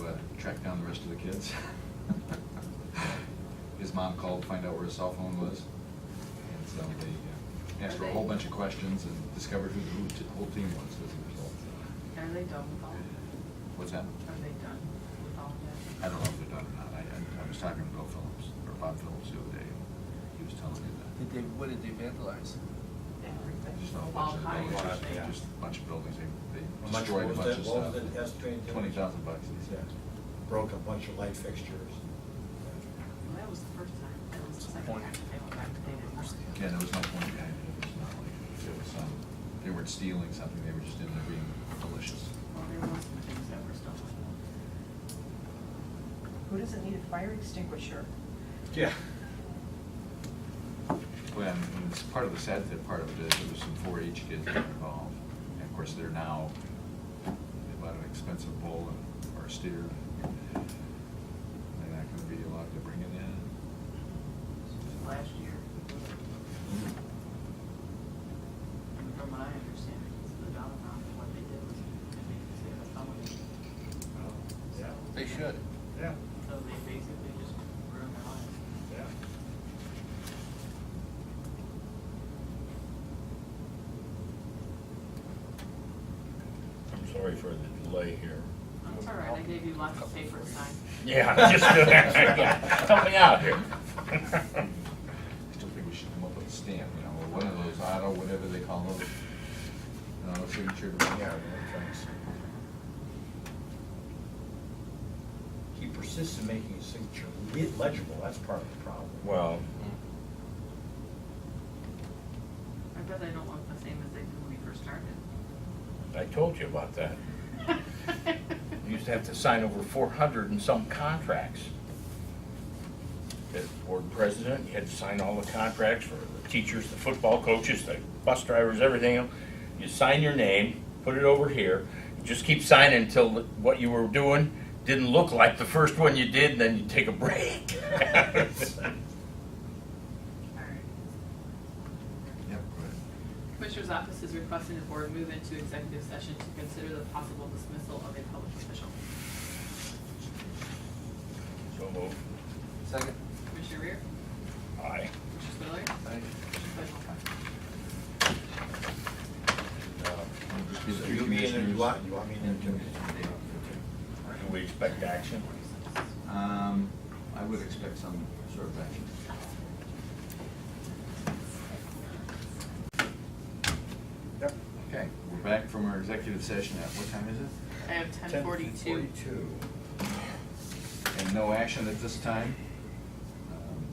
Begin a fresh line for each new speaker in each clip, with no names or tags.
uh, track down the rest of the kids. His mom called, to find out where his cell phone was. And so they uh, asked her a whole bunch of questions and discovered who the whole t- whole team was as a result.
Are they done with all that?
What's that?
Are they done with all that?
I don't know if they're done or not. I, I- I was talking to Bill Phillips, or Bob Phillips the other day, and he was telling me that.
Did they, what did they vandalize?
Everything.
Just a whole
All
bunch of
kinds
buildings,
of things.
just a bunch of buildings, they,
How
they
much
destroyed a
was
bunch
that-
of
what was
stuff.
it, estimated damage?
Twenty thousand bucks, he
Yeah,
said.
uh, Broke a bunch of light fixtures.
Well, That was the first time, that was the second time that they went back to data.
Yeah, there was no point behind it, it was not like, it was some, they weren't stealing something, they were just in there being malicious.
Well, there were some things that were stolen.
Who doesn't need a fire extinguisher?
Yeah.
When, when it's part of the sad that part of it is, there was some four H kids that were involved, and of course, they're now, they bought an expensive bull and, or steer. They're not gonna be allowed to bring it in.
Last year, and from what I understand, it's the dollar amount of what they did was, I think, they said, how much.
Yeah,
They should.
yeah,
So they basically just ruined their life.
yeah.
I'm sorry for the delay here.
That's all right, I gave you lots of paper to sign.
Yeah, just, help me out here.
I still think we should come up with a stamp, you know, or one of those auto, whatever they call those, uh, signature.
Yeah, thanks.
He persists in making his signature le- legible, that's part of the problem.
Well,
I bet they don't look the same as they did when we first started.
I told you about that. You used to have to sign over four hundred and some contracts. As board president, you had to sign all the contracts for the teachers, the football coaches, the bus drivers, everything. else. You sign your name, put it over here, and just keep signing until what you were doing didn't look like the first one you did, and then you take a break.
All right.
Yep,
Commissioner's office is requesting the board move into executive session to consider the possible dismissal of a public official.
So moved.
Second?
Commissioner Reer?
Aye.
Commissioner Spiller?
Aye.
Commissioner Clay?
uh,
right.
You mean, you want, you want me to do it?
Do we expect action?
Um, I would expect some sort of action.
Yep.
Okay, we're back from our executive session at, what time is it?
I have ten forty-two.
10:42.
And no action at this time. Um,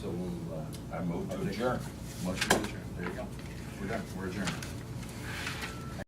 So we'll, uh.
I move to
I'll take-
adjourn.
Motion to adjourn, there you go. We're done, we're adjourned.